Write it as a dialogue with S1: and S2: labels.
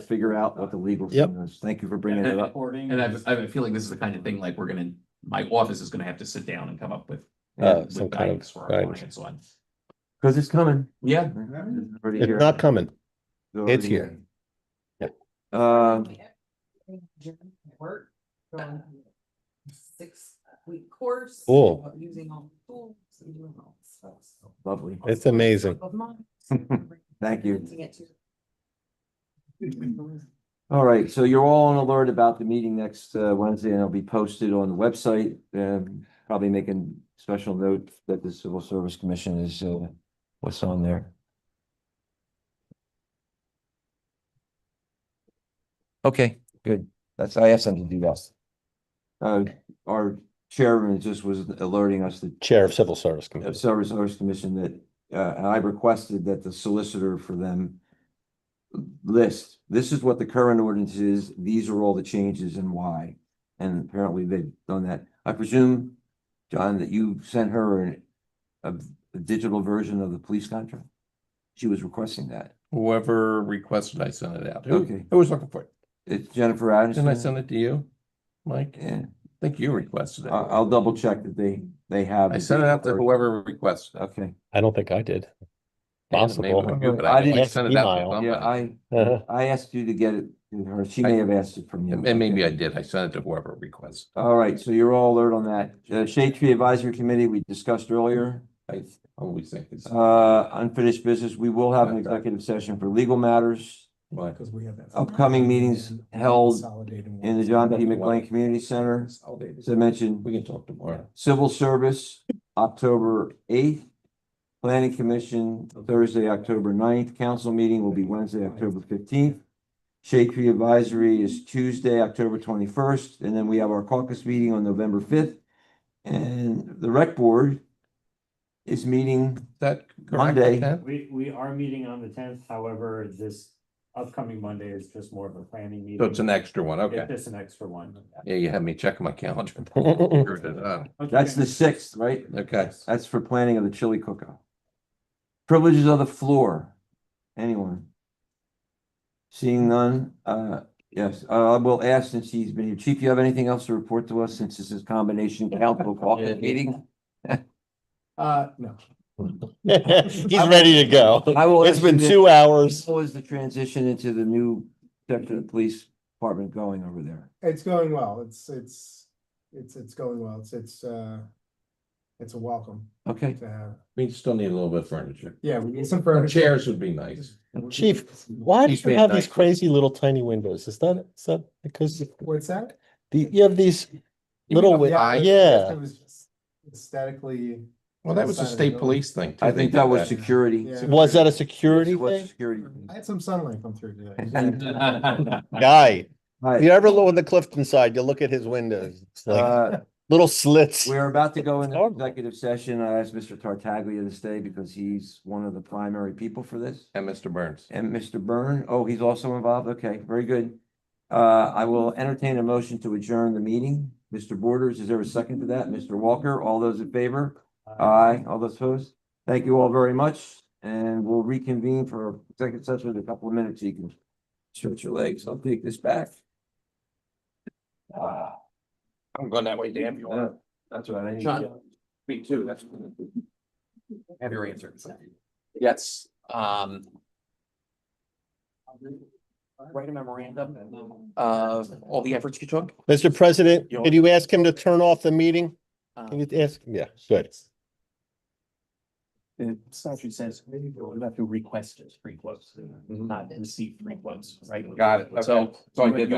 S1: figure out what the legal
S2: Yep.
S1: thing is. Thank you for bringing it up.
S3: And I've, I have a feeling this is the kind of thing like we're gonna, my office is gonna have to sit down and come up with.
S2: Uh,
S1: Because
S2: some
S3: with
S2: kind of
S3: guidance for our
S2: guidance.
S3: clients on.
S1: it's coming.
S3: Yeah,
S1: It's already
S2: It's
S1: here.
S2: not coming.
S1: already
S2: it's here. Yep.
S1: Uh,
S4: Work. going Six week course.
S2: Cool.
S4: Using all the tools and doing all the stuff. so.
S1: lovely.
S2: It's amazing.
S4: Of mine.
S1: Thank you.
S4: Using it to-
S1: All right, so you're all on alert about the meeting next uh, Wednesday and it'll be posted on the website. Um, probably making special note that the Civil Service Commission is uh, what's on there. Okay, good. That's, I asked them to do that. Uh, our chairman just was alerting us that
S2: Chair of Civil Service
S1: uh,
S2: Committee.
S1: Service Owners Commission that, uh, and I requested that the solicitor for them list, this is what the current ordinance is, these are all the changes and why. And apparently they've done that. I presume, John, that you sent her an- a, a digital version of the police contract? She was requesting that.
S5: Whoever requested I sent it out.
S1: Okay. Mm-hmm.
S5: Who, who was looking for it?
S1: It's Jennifer
S5: Didn't I
S1: Addison.
S5: send it to you, Mike? I
S1: Yeah,
S5: think you requested it.
S1: I, will double check that they, they have.
S5: I
S1: the
S5: sent it out to
S1: digital
S5: whoever requested. it.
S1: version.
S2: I don't think I did.
S5: And it may have
S2: Possible.
S5: been you, but
S1: I
S5: I think I
S1: didn't-
S5: sent it out to
S2: Email.
S1: Okay, yeah,
S5: somebody.
S1: I,
S2: Uh-huh.
S1: I asked you to get it to her. She may have asked it from you.
S5: And and maybe I did. I sent it to whoever requested.
S1: All right, so you're all alert on that. Uh, Shade Tree Advisory Committee, we discussed earlier.
S5: it. I always think it's.
S1: Uh, unfinished business, we will have an executive session for legal matters
S5: Why?
S6: Because we have that.
S1: Upcoming meetings held in the John P. McLean
S5: McLean
S1: Community Center.
S5: Consolidated.
S1: As I mentioned,
S5: We can talk tomorrow.
S1: civil service, October eighth. Planning Commission, Thursday, October 9th. Council meeting will be Wednesday, October fifteenth. Shade Tree Advisory is Tuesday, October twenty-first, and then we have our caucus meeting on November fifth. And the rec board is meeting,
S5: Is That correct?
S1: Monday.
S5: Ted?
S7: We, we are meeting on the tenth, however, this upcoming Monday is just more of a planning meeting.
S5: So it's an extra one. Okay.
S7: It's just an extra one.
S5: Yeah, you had me checking my calendar. Screwed it up.
S7: Okay.
S1: that's the sixth, right?
S5: Okay.
S1: That's for planning of the chili cookout. Privileges of the floor, anyone? Seeing none, uh, yes, uh, we'll ask since he's been here. Chief, you have anything else to report to us since this is combination council caucus meeting?
S6: Uh, no.
S2: He's ready to go.
S1: I will
S2: It's
S1: ask
S2: been
S1: you this-
S2: two hours.
S1: How is the transition into the new section of the police department going over there?
S6: It's going well. It's, it's, it's, it's going well. It's, it's, uh, it's a welcome
S1: Okay,
S6: to have.
S5: We still need a little bit of furniture.
S6: Yeah, we need some furniture.
S5: Chairs would be nice.
S2: Chief, Why do
S5: He's
S2: you
S5: made
S2: have these
S5: nice.
S2: crazy little tiny windows? Is that, is that because
S6: What's that?
S2: the, you have these
S5: You mean
S2: little,
S5: up
S2: win-
S6: high?
S2: Oh, yeah,
S6: It was just aesthetically,
S5: Well, that was the
S6: Outside of the
S5: state
S6: building.
S5: police thing. too.
S1: I
S5: They
S1: think
S5: did
S1: that was security.
S6: Yeah.
S2: was that a
S1: It
S2: security
S1: was
S2: thing?
S1: security.
S6: I had some sunlight come through today.
S2: Guy,
S1: All
S2: you
S1: right,
S2: ever look on the Clifton side, you look at his windows, it's like
S1: uh,
S2: little slits.
S1: We are about to go
S2: It's
S1: into
S2: horrible.
S1: executive session. I asked Mr. Tartaglia to stay because he's one of the primary people for this.
S5: And Mr. Burns.
S1: And Mr. Byrne, oh, he's also involved. Okay, very good. Uh, I will entertain a motion to adjourn the meeting. Mr. Borders, is there a second to that? Mr. Walker, all those in favor?
S7: Uh,
S1: Aye, all those opposed? Thank you all very much, and we'll reconvene for executive session in a couple of minutes. You can stretch your legs. I'll take this back. Ah,
S5: I'm going that way, damn
S1: uh, That's right. I need-
S3: John.
S5: Me too, that's.
S3: have your answer. Yes, um. Write a memorandum of all the efforts you took.
S2: Mr. President,
S3: Yo.
S2: could you ask him to turn off the meeting?
S3: um,
S2: Can you ask, yeah, good.
S3: The statute says you have to request free quotes, not receive free quotes, right?
S5: Mm-hmm. Got it, okay.
S3: So
S5: So I did that.